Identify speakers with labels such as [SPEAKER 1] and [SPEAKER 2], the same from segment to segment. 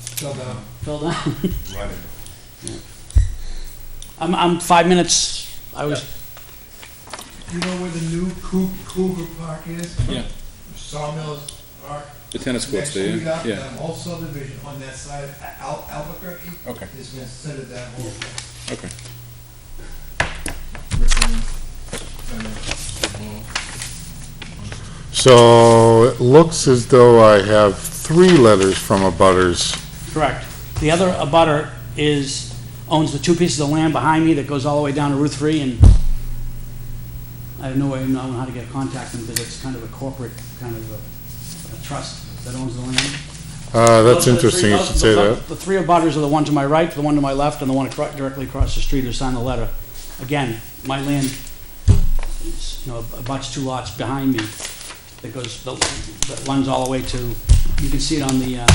[SPEAKER 1] Still down.
[SPEAKER 2] Phil, down.
[SPEAKER 1] Running.
[SPEAKER 2] I'm, I'm five minutes, I was,
[SPEAKER 1] You know where the new Cou- Cougar Park is?
[SPEAKER 3] Yeah,
[SPEAKER 1] Sawmills Park?
[SPEAKER 3] the tennis
[SPEAKER 1] Next
[SPEAKER 3] court's there,
[SPEAKER 1] street up,
[SPEAKER 3] yeah,
[SPEAKER 1] that whole subdivision on that side of Al- Albuquerque
[SPEAKER 3] okay,
[SPEAKER 1] is considered that whole thing.
[SPEAKER 3] okay.
[SPEAKER 4] So it looks as though I have three letters from abutters.
[SPEAKER 2] correct. The other abutter is, owns the two pieces of land behind me that goes all the way down to Route 3, and I have no way of knowing how to get contact them, because it's kind of a corporate, kind of a a trust that owns the land. Those are
[SPEAKER 4] Uh, that's
[SPEAKER 2] the
[SPEAKER 4] interesting,
[SPEAKER 2] three-
[SPEAKER 4] you
[SPEAKER 2] those-
[SPEAKER 4] should say
[SPEAKER 2] the-
[SPEAKER 4] that.
[SPEAKER 2] The three abutters are the one to my right, the one to my left, and the one acro- directly across the street who signed the letter. Again, my land, is, you know, abuts two lots behind me that goes, that that runs all the way to, you can see it on the, uh,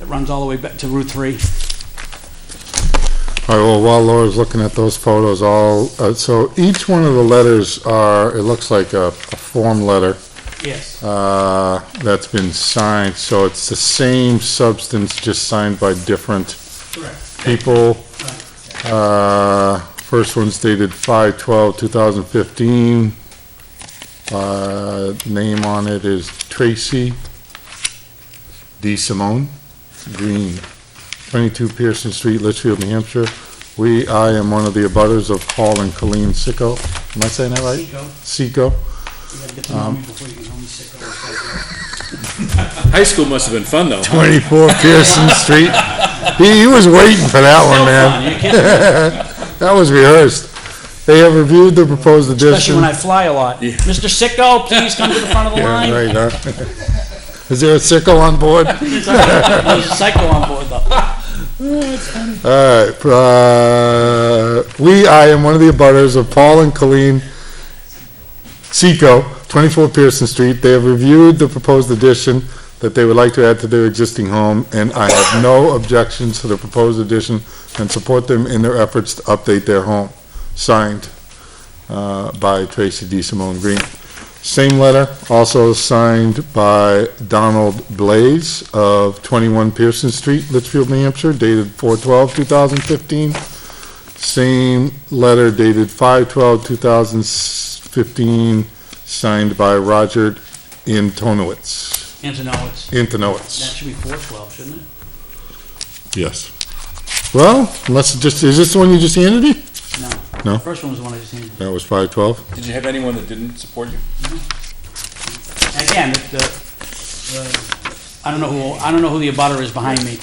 [SPEAKER 2] it runs all the way back to Route 3.
[SPEAKER 4] All right, well, while Laura's looking at those photos, all, uh, so each one of the letters are, it looks like a, a form letter,
[SPEAKER 2] Yes.
[SPEAKER 4] uh, that's been signed, so it's the same substance, just signed by different
[SPEAKER 2] Correct.
[SPEAKER 4] people. Uh, First one's dated 5/12/2015. Uh, Name on it is Tracy D. Simone Green, 22 Pearson Street, Litchfield, New Hampshire. We, I am one of the abutters of Paul and Colleen Sicko. Am I saying that right?
[SPEAKER 2] Seco.
[SPEAKER 4] Sicko?
[SPEAKER 2] You gotta get to
[SPEAKER 4] Um,
[SPEAKER 2] know me before you can call me sicko.
[SPEAKER 3] High school must have been fun, though.
[SPEAKER 4] 24 Pearson Street. He, he was waiting for that one, man.
[SPEAKER 2] You can't-
[SPEAKER 4] That was rehearsed. They have reviewed the proposed addition.
[SPEAKER 2] Especially when I fly a lot. Mr. Sicko, please come to the front of the
[SPEAKER 4] Yeah,
[SPEAKER 2] line.
[SPEAKER 4] right, huh? Is there a sickle on board?
[SPEAKER 2] There's a psycho on board, though.
[SPEAKER 4] All right, uh, we, I am one of the abutters of Paul and Colleen Seco, 24 Pearson Street. They have reviewed the proposed addition that they would like to add to their existing home, and I have no objections to the proposed addition and support them in their efforts to update their home. Signed uh, by Tracy D. Simone Green. Same letter, also signed by Donald Blaze of 21 Pearson Street, Litchfield, New Hampshire, dated 4/12/2015. Same letter dated 5/12/2015, signed by Roger Antonowitz,
[SPEAKER 2] Antonowitz. That
[SPEAKER 4] Antonowitz.
[SPEAKER 2] should be four twelve, shouldn't it?
[SPEAKER 4] Yes. Well, unless it just, is this the one you just handed me?
[SPEAKER 2] No.
[SPEAKER 4] No.
[SPEAKER 2] The First one was the one I just handed.
[SPEAKER 4] That was 5/12.
[SPEAKER 3] Did you have anyone that didn't support you?
[SPEAKER 2] And Again, the, the, I don't know who, I don't know who the abutter is behind me.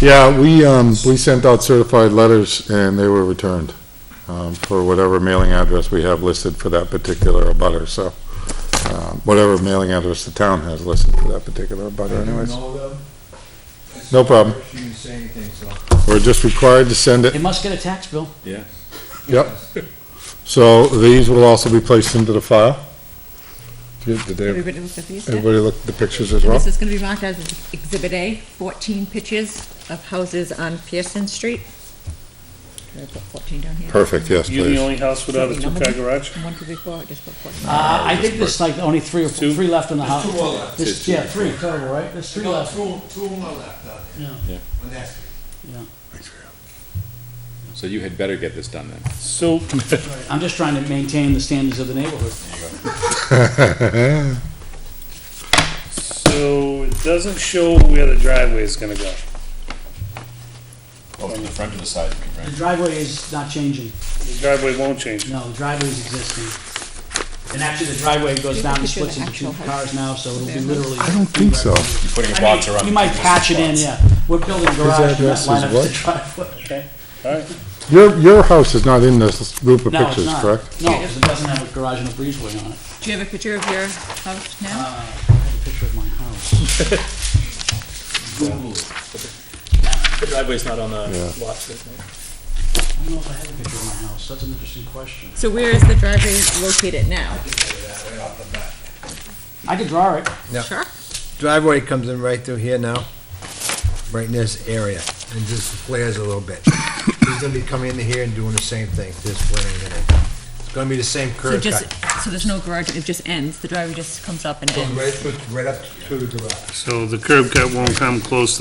[SPEAKER 4] Yeah, we, um, we sent out certified letters and they were returned, um, for whatever mailing address we have listed for that particular abutter, so, um, whatever mailing address the town has listed for that particular abutter anyways.
[SPEAKER 1] No, though?
[SPEAKER 4] No problem.
[SPEAKER 1] She didn't say anything, so.
[SPEAKER 4] We're just required to send
[SPEAKER 2] They
[SPEAKER 4] it,
[SPEAKER 2] must get a tax bill.
[SPEAKER 3] Yeah.
[SPEAKER 4] yep. So these will also be placed into the file. Did did they-
[SPEAKER 5] Everybody looked at these? yeah?
[SPEAKER 4] everybody look at the pictures as well?
[SPEAKER 5] This is gonna be marked as Exhibit A, fourteen pictures of houses on Pearson Street. Should I put fourteen down here?
[SPEAKER 4] Perfect, yes,
[SPEAKER 6] You the
[SPEAKER 4] please.
[SPEAKER 6] only house without a two-car garage?
[SPEAKER 5] One, two, three, four, I just put fourteen.
[SPEAKER 2] Uh, I think there's like only three or, four-
[SPEAKER 3] Two?
[SPEAKER 2] three left in the
[SPEAKER 3] Ah.
[SPEAKER 2] house.
[SPEAKER 1] Two more left.
[SPEAKER 2] There's, yeah, three total, right? There's three
[SPEAKER 1] No,
[SPEAKER 2] left.
[SPEAKER 1] two, two more left out there.
[SPEAKER 2] Yeah.
[SPEAKER 3] Yeah.
[SPEAKER 1] On that street.
[SPEAKER 3] So you had better get this done then.
[SPEAKER 6] So,
[SPEAKER 2] I'm just trying to maintain the standards of the neighborhood.
[SPEAKER 6] so it doesn't show where the driveway is gonna go.
[SPEAKER 3] Oh, from the front to the side, you mean,
[SPEAKER 2] The driveway is not changing.
[SPEAKER 6] The driveway won't change.
[SPEAKER 2] No, the driveway is existing. And actually, the driveway goes down and
[SPEAKER 5] Picture of
[SPEAKER 2] splits
[SPEAKER 5] the
[SPEAKER 2] into two
[SPEAKER 5] actual house.
[SPEAKER 2] cars now, so it'll be
[SPEAKER 5] There.
[SPEAKER 2] literally.
[SPEAKER 4] I don't think so.
[SPEAKER 3] You're putting
[SPEAKER 2] I
[SPEAKER 3] a
[SPEAKER 2] mean,
[SPEAKER 3] box around.
[SPEAKER 2] You might
[SPEAKER 3] between
[SPEAKER 2] patch it
[SPEAKER 3] those
[SPEAKER 2] in,
[SPEAKER 3] spots.
[SPEAKER 2] yeah. We're building a garage and
[SPEAKER 4] address
[SPEAKER 2] that
[SPEAKER 4] is
[SPEAKER 2] line up
[SPEAKER 4] what?
[SPEAKER 2] the driveway.
[SPEAKER 6] Alright,
[SPEAKER 4] Your, your house is not in this group of
[SPEAKER 2] No, it's
[SPEAKER 4] pictures,
[SPEAKER 2] not.
[SPEAKER 4] correct?
[SPEAKER 2] No, 'cause it doesn't have a garage and a breezeway on it.
[SPEAKER 5] Do you have a picture of your house
[SPEAKER 2] Uh,
[SPEAKER 5] now?
[SPEAKER 2] I have a picture of my house.
[SPEAKER 7] The driveway's not on the
[SPEAKER 4] Yeah.
[SPEAKER 7] lot, so it's not-
[SPEAKER 2] I don't know if I have a picture of my house. That's an interesting question.
[SPEAKER 5] So where is the driveway located now?
[SPEAKER 2] I could draw it.
[SPEAKER 5] Sure.
[SPEAKER 8] driveway comes in right through here now, right in this area, and just flares a little bit. He's gonna be coming into here and doing the same thing, just flaring it in. It's gonna be the same
[SPEAKER 5] So
[SPEAKER 8] curve
[SPEAKER 5] just,
[SPEAKER 8] cut.
[SPEAKER 5] so there's no garage, it just ends, the driveway just comes up and ends?
[SPEAKER 8] Right, right up to the garage.
[SPEAKER 6] so the curb cut won't come close to